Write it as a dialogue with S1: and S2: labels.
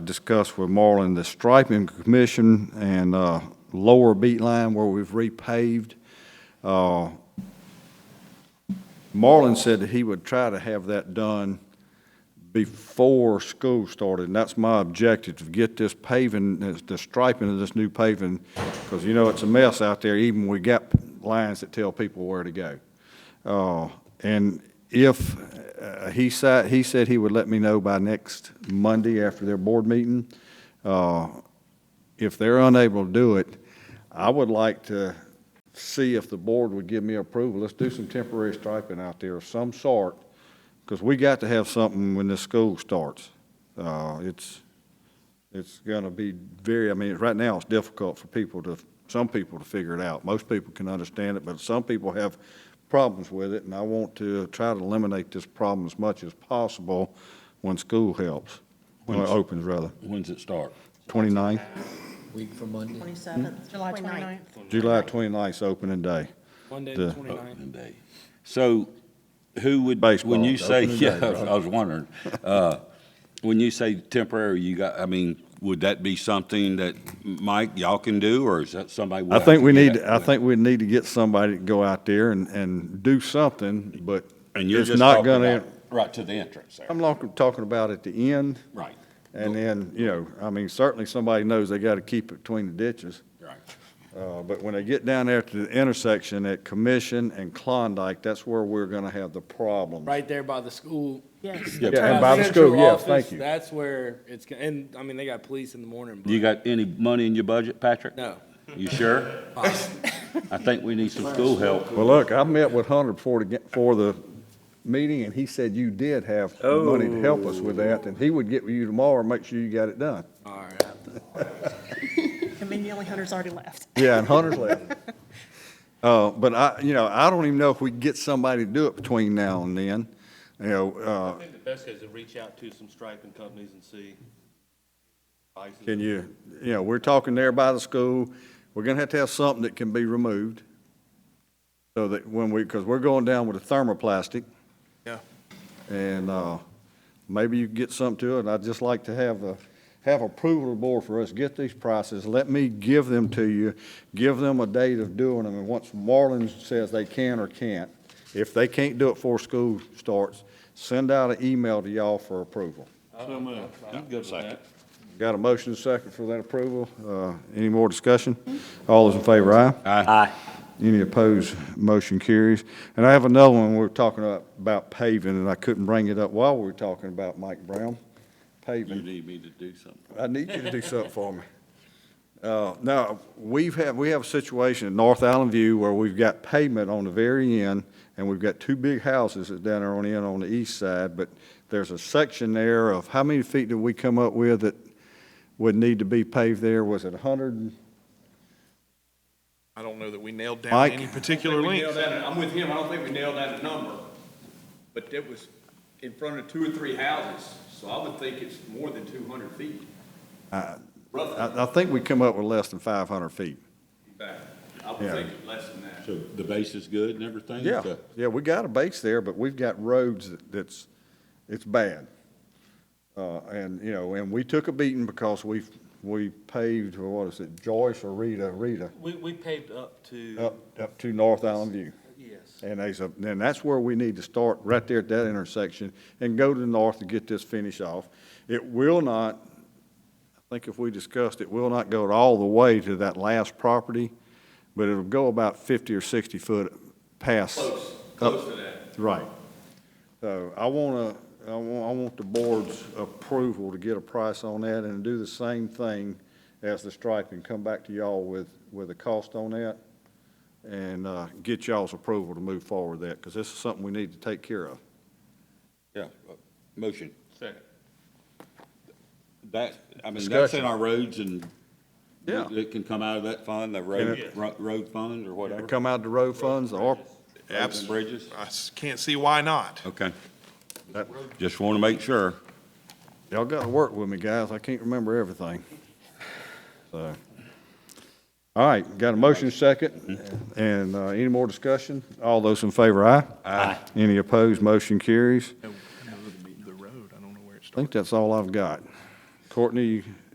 S1: discussed with Marlon the striping commission and uh, lower beat line where we've repaved. Uh, Marlon said that he would try to have that done before school started, and that's my objective, to get this paving, this- the striping of this new paving, because you know it's a mess out there, even we got lines that tell people where to go. Uh, And if, uh, he said, he said he would let me know by next Monday after their board meeting. Uh, If they're unable to do it, I would like to see if the board would give me approval. Let's do some temporary striping out there of some sort, because we got to have something when this school starts. Uh, It's, it's going to be very, I mean, right now, it's difficult for people to, some people to figure it out. Most people can understand it, but some people have problems with it, and I want to try to eliminate this problem as much as possible when school helps, when it opens, rather.
S2: When's it start?
S1: 29th,
S3: Week from Monday.
S4: 27th.
S5: July 29th.
S1: July 29th is opening day.
S6: Monday,
S1: The-
S6: the twenty-ninth.
S2: Opening day. So who would, when
S1: Baseball,
S2: you say,
S1: opening day,
S2: yeah, I was wondering, uh, when you say temporary, you got, I mean, would that be something that, Mike, y'all can do, or is that somebody?
S1: I
S2: have
S1: think
S2: to
S1: we
S2: get
S1: need, I
S2: out with?
S1: think we need to get somebody to go out there and, and do something, but
S2: And you're
S1: it's
S2: just
S1: not
S2: talking
S1: gonna,
S2: about right to the entrance there,
S1: I'm lo- talking about at the end,
S2: right,
S1: and then, you know, I mean, certainly somebody knows they gotta keep it between the ditches.
S2: right.
S1: Uh, but when they get down there to the intersection at Commission and Klondike, that's where we're gonna have the problem.
S6: Right there by the school.
S5: Yes.
S2: Yeah,
S1: Yeah, and
S2: but
S1: by the
S6: Central
S1: school, yes,
S6: office,
S1: thank you.
S6: That's where it's, go- and, I mean, they got police in the morning,
S2: You
S6: but
S2: got any money in your budget, Patrick?
S6: no.
S2: You sure? I think we need some school help.
S1: Well, look, I met with Hunter before the, ga- for the meeting, and he said you did have money to help us with that, and he would get with you tomorrow and make sure you got it done.
S6: All right.
S5: And then the only hunter's already left.
S1: Yeah, and Hunter's left. Uh, but I, you know, I don't even know if we can get somebody to do it between now and then, you know, uh,
S7: I think the best is to reach out to some striping companies and see. prices.
S1: can you, you know, we're talking there by the school, we're gonna have to have something that can be removed. So that when we, because we're going down with a thermoplastic.
S6: Yeah.
S1: And, uh, maybe you can get something to it, I'd just like to have a, have approval of the board for us, get these prices, let me give them to you, give them a date of doing them, and once Marlin says they can or can't, if they can't do it before school starts, send out an email to y'all for approval.
S7: So moved. I'm good with that.
S1: Got a motion and a second for that approval. Uh, Any more discussion? All those in favor, aye?
S2: Aye.
S1: Any opposed, motion carries. And I have another one, we we're talking about- about paving, and I couldn't bring it up while we were talking about Mike Brown,
S2: You
S1: paving.
S2: need me to do something.
S1: I need you to do something for me. Uh, Now, we've had, we have a situation in North Island View where we've got pavement on the very end, and we've got two big houses that's down there on the end on the east side, but there's a section there of, how many feet did we come up with that would need to be paved there? Was it 100?
S8: I don't know that we nailed down
S1: Mike?
S8: any particular
S9: think we
S8: length.
S9: nailed down- I'm with him, I don't think we nailed down a number, but it was in front of two or three houses, so I would think it's more than two hundred feet.
S1: Uh,
S9: Roughly,
S1: I, I think we come up with less than 500 feet.
S9: in fact. I would
S1: Yeah.
S9: think less than that.
S2: So the base is good and everything?
S1: Yeah,
S2: So-
S1: yeah, we got a base there, but we've got roads that- that's, it's bad. Uh, and, you know, and we took a beating because we, we paved, or what is it, Joyce or Rita, Rita,
S7: We, we uh, paved up to,
S1: up, up to North Island View.
S7: yes.
S1: And there's a, and that's where we need to start, right there at that intersection, and go to the north to get this finish off. It will not, I think if we discussed, it will not go all the way to that last property, but it'll go about fifty or sixty foot past.
S9: Close,
S1: up-
S9: close to that.
S1: Right. So I want to, I want, I want the board's approval to get a price on that and do the same thing as the striping, come back to y'all with, with a cost on that and, uh, get y'all's approval to move forward with that, because this is something we need to take care of.
S2: Yeah, uh, motion.
S7: Second.
S2: That, I mean, that's
S1: Discussion.
S2: in our roads and
S1: Yeah.
S2: it can come out of that fund, the road, ro- road fund or whatever.
S1: Come out of the road funds, the ARPA,
S2: Roads and Bridges.
S8: I s- can't see why not.
S2: Okay.
S1: That-
S2: Just want to make sure.
S1: Y'all got to work with me, guys. I can't remember everything. So, all right, got a motion second, and uh, any more discussion? All those in favor, aye? Aye. Any opposed, motion carries.
S8: No, no, the road, I don't know where it
S1: I think that's all I've got. Courtney,